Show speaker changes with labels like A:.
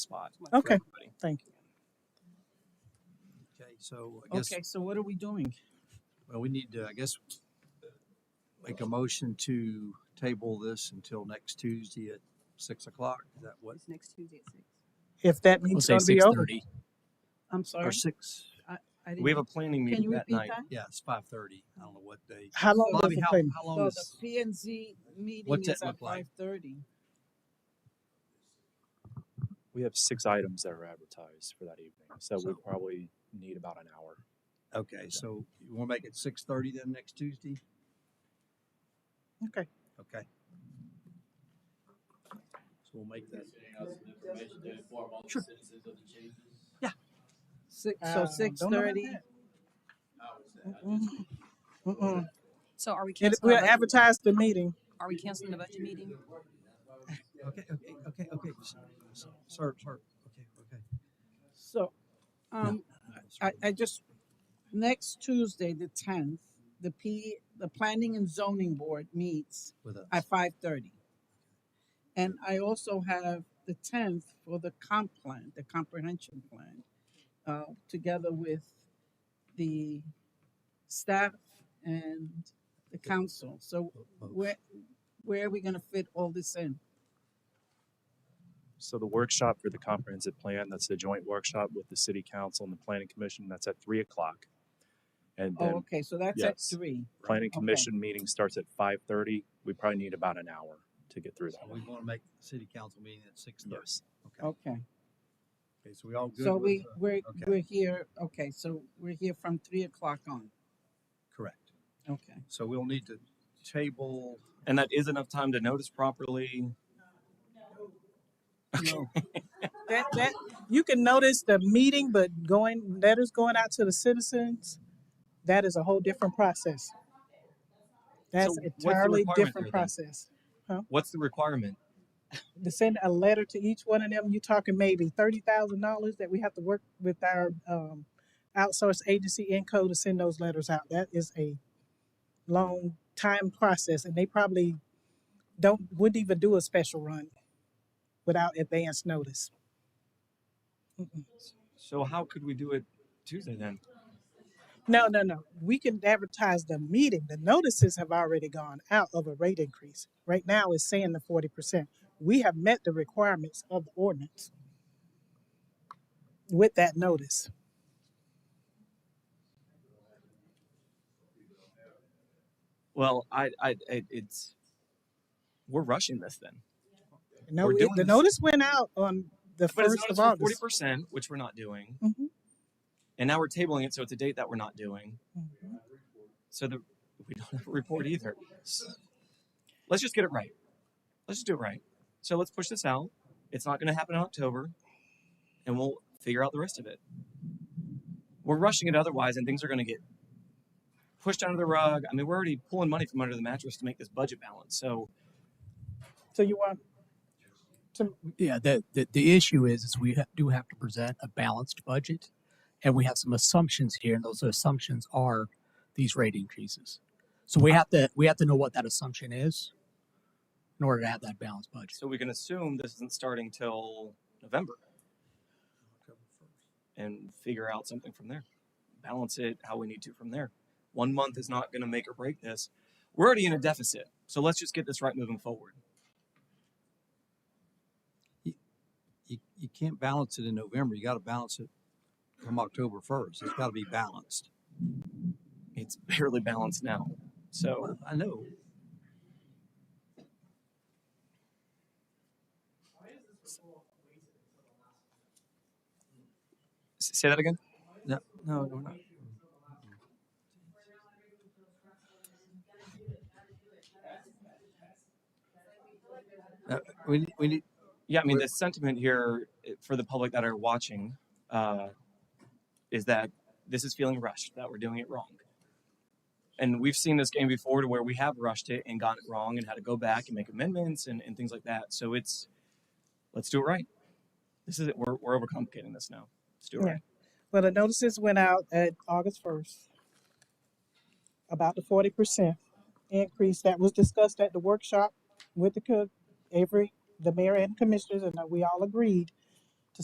A: spot. for
B: Okay.
A: everybody.
B: Thank you.
C: Okay, so I guess,
B: Okay, so what are we doing?
C: well, we need to, I guess, make a motion to table this until next Tuesday at six o'clock. Is that what,
D: It's next Tuesday at six.
B: If that
A: We'll
B: means
A: say
B: to be
A: six
B: over.
A: thirty.
B: I'm
C: or
B: sorry.
C: six?
D: I
A: We have a
D: didn't-
A: planning
D: Can
A: meeting
D: you
A: that
D: repeat
A: night.
D: that?
C: Yeah, it's five thirty. I don't know what day.
B: How long does
C: Bobby,
B: the
C: how,
B: plan?
C: how long
E: So
C: is,
E: the P and Z meeting
C: What's
E: is
C: that
E: at
C: look like?
E: five thirty.
A: We have six items that are advertised for that evening, so we
C: So-
A: probably need about an hour.
C: okay, so you want to make it six thirty then next Tuesday?
B: Okay.
C: Okay. So we'll make that.
E: Six,
B: Uh,
E: so six
B: don't know about
E: thirty.
B: that. Mm-mm. Mm-mm.
D: So are we
B: It-
D: canceling,
B: We'll
D: the budget-
B: advertise the meeting.
D: are we canceling the budget meeting?
C: Okay, okay, okay, okay. s- s- Sir, sir, okay, okay.
E: So, um,
C: All right, sir.
E: I, I just, next Tuesday, the tenth, the P, the Planning and Zoning Board meets
C: With us.
E: at five thirty. And I also have the tenth for the comp plan, the comprehension plan, uh, together with the staff and the council. So
C: Both.
E: where, where are we gonna fit all this in?
A: So the workshop for the comprehensive plan, that's the joint workshop with the city council and the planning commission, that's at three o'clock. And
E: Oh,
A: then
E: okay, so that's at
A: yes.
E: three.
A: planning
E: okay.
A: commission meeting starts at five thirty. We probably need about an hour to get through
C: So
A: that.
C: we
A: one.
C: want to make the city council meeting at six thirty.
A: Yes.
C: Okay,
E: Okay,
C: okay, Oh, so we all good
E: so
C: with,
E: we,
C: uh,
E: we're,
C: okay.
E: we're here, okay, so we're here from three o'clock on,
C: correct.
E: okay.
C: So we'll need to table,
A: And that is enough time to notice properly.
C: no,
B: That, that, you can notice the meeting, but going, letters going out to the citizens, that is a whole different process. That's
A: So what's the
B: entirely
A: requirement
B: different
A: there then?
B: process.
A: What's the requirement?
B: To send a letter to each one of them, you're talking maybe thirty thousand dollars that we have to work with our, um, outsourced agency Enco to send those letters out. That is a long time process and they probably don't, wouldn't even do a special run without advance notice.
A: So how could we do it Tuesday then?
B: No, no, no. We can advertise the meeting. The notices have already gone out of a rate increase. Right now it's saying the forty percent. We have met the requirements of the ordinance with that notice.
A: Well, I, I, it, it's, we're rushing this then.
B: No,
A: We're
B: it-
A: doing
B: the
A: this.
B: notice went out on the
A: But it's
B: first of
A: noticed forty
B: August.
A: percent, which we're not doing,
D: Mm-hmm.
B: Mhm.
A: and now we're tabling it, so it's a date that we're not doing.
B: Mhm.
A: So the we don't have a report either. S- Let's just get it right. Let's just do it right. So let's push this out. It's not going to happen in October, and we'll figure out the rest of it. We're rushing it otherwise, and things are going to get pushed under the rug. I mean, we're already pulling money from under the mattress to make this budget balance. So
B: So you want,
F: Yeah, the, the, the issue is, is we ha- do have to present a balanced budget and we have some assumptions here and those assumptions are these rate increases. So we have to, we have to know what that assumption is in order to have that balanced budget.
A: so we can assume this isn't starting till November. and figure out something from there. Balance it how we need to from there. One month is not going to make or break this. We're already in a deficit, so let's just get this right moving forward.
C: you, you can't balance it in November. You got to balance it come October first. It's got to be balanced.
A: It's barely balanced now. So,
C: Well, I know.
A: s- say that again.
C: No, no, we're not. Uh, we, need- we need,
A: Yeah, I mean, the sentiment here eh, for the public that are watching uh, is that this is feeling rushed, that we're doing it wrong. And we've seen this game before to where we have rushed it and gotten it wrong and had to go back and make amendments and, and things like that. So it's, let's do it right. This is it. We're, we're overcomplicating this now. Let's do it
B: Yeah.
A: right.
B: well, the notices went out at August first about the forty percent increase that was discussed at the workshop with the cook, Avery, the mayor and commissioners, and that we all agreed